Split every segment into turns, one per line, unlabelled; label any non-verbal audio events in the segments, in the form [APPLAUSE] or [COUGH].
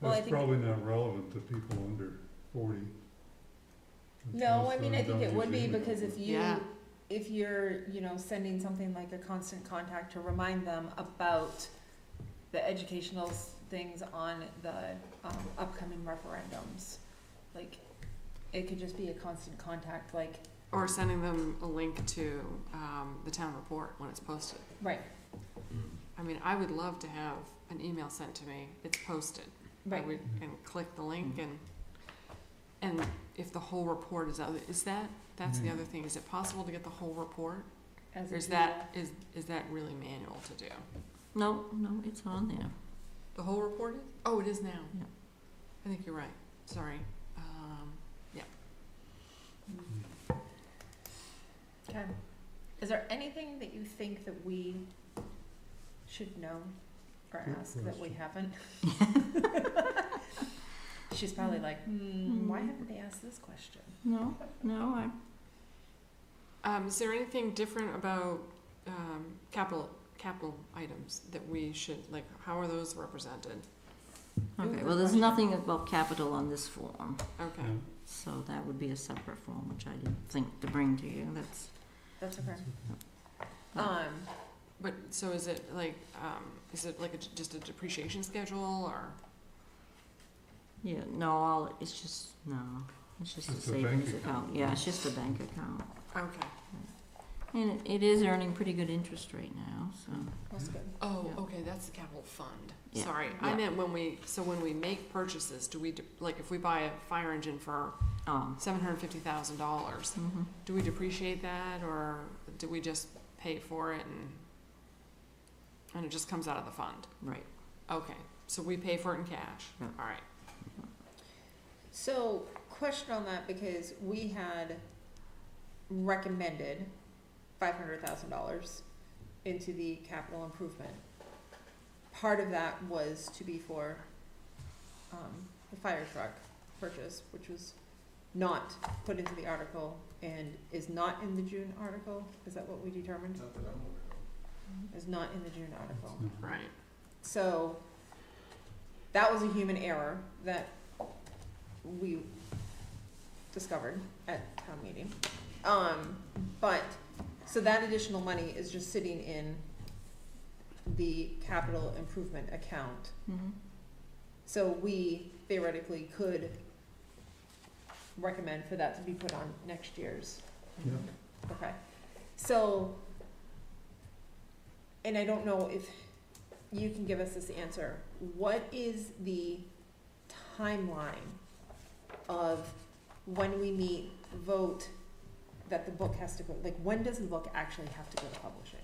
Well, I
That's
think-
probably not relevant to people under forty.
No,
Because
I mean,
they
I think
don't
it would
use
be
email.
because if you,
Yeah.
if you're, you know, sending something like a constant contact to remind them about the educational s- things on the um, upcoming referendums, like, it could just be a constant contact, like,
Or sending them a link to um, the town report when it's posted.
right,
I mean, I would love to have an email sent to me, it's posted. I
right.
would- And click the link and, and if the whole report is out, is that, that's the
Mhm.
other thing, is it possible to get the whole report?
as
Or is
a-
that, is, is that really manual to do?
No, Oh, no, it's on there.
The whole report is? Oh, it is now.
Yeah.
I think you're right, sorry. Um,
Mm.
Okay. Is there anything that you think that we should know or
Good
ask that we
question.
haven't?
[LAUGHS]
[LAUGHS] She's probably like, hmm, why
Hmm.
haven't they asked this question?
No, no, I,
Um, is there anything different about, um, capital, capital items that we should, like, how are those represented?
okay,
good
well, there's
question.
nothing about capital on this form,
Okay,
Yeah,
so that would be a separate form, which I didn't think to bring to you, that's,
That's okay.
that's okay.
Um,
but, so is it like, um, is it like a, just a depreciation schedule, or?
yeah, no, all, it's just, no, it's just a
It's a bank
savings account,
account.
yeah, it's just a bank account.
Okay.
And it, it is earning pretty good interest right now, so,
that's good.
Oh,
Yeah.
okay, that's the capital fund.
Yeah,
Sorry, I
yeah.
meant when we, so when we make purchases, do we, de- like, if we buy a fire engine for
oh,
seven hundred and fifty thousand dollars,
mhm.
do we depreciate that, or do we just pay for it and, and it just comes out of the fund?
right,
Okay, so we pay for it in cash,
Yeah.
all right.
So, question on that because we had recommended five hundred thousand dollars into the capital improvement. Part of that was to be for um, the fire truck purchase, which was not put into the article and is not in the June article. Is that what we determined?
Not that I'm aware of.
Is not in the June article.
It's not-
Right.
So that was a human error that we discovered at town meeting. Um, but, so that additional money is just sitting in the capital improvement account.
mhm,
So we theoretically could recommend for that to be put on next year's.
Yeah.
Okay, so, and I don't know if you can give us this answer. What is the timeline of when we meet, vote, that the book has to go, like, when does the book actually have to go to publishing?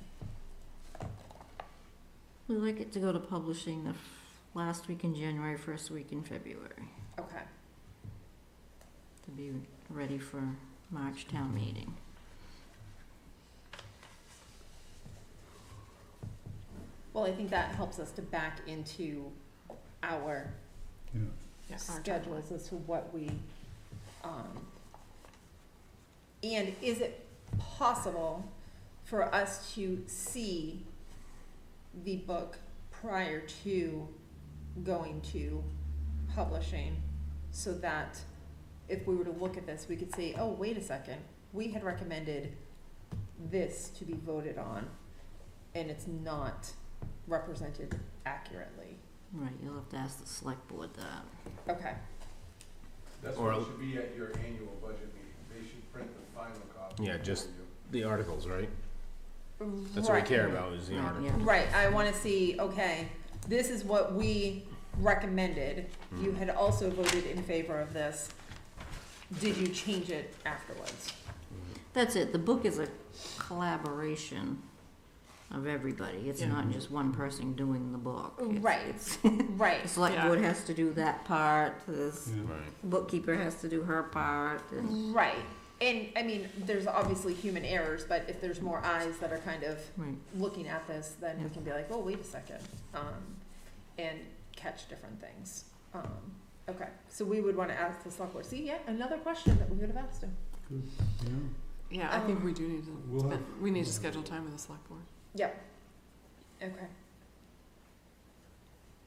we'd like it to go to publishing the f- last week in January, first week in February,
Okay,
to be ready for March town meeting.
well, I think that helps us to back into our
Yeah,
Yeah, our timeline.
schedules as to what we, um, and is it possible for us to see the book prior to going to publishing? So that if we were to look at this, we could say, oh, wait a second, we had recommended this to be voted on, and it's not represented accurately.
Right, you'll have to ask the select board that.
Okay,
That's
Or-
what should be at your annual budget meeting. They should print the final copy.
Yeah, just-
for you.
The articles, right?
right.
That's what we care about is the
Right,
article.
yeah.
Right, I wanna see, okay, this is what we recommended, you had also voted in favor of this, did you change it afterwards?
That's it. The book is a collaboration of everybody. It's
Yeah.
not just one person doing the book. It's-
Right.
It's, the
Right,
select
Yeah.
board has to do that part, the
yeah.
Right.
bookkeeper has to do her part. and-
right, and, I mean, there's obviously human errors, but if there's more eyes that are kind of
Right,
looking at this, then we can be like, oh, wait a second, um, and catch different things. Um, okay, so we would wanna ask the select board, see, yeah, another question that we would have asked him.
Good, yeah.
Yeah, I think
Um,
we do need to,
We'll have-
spend- we need to schedule time with the select board.
Okay,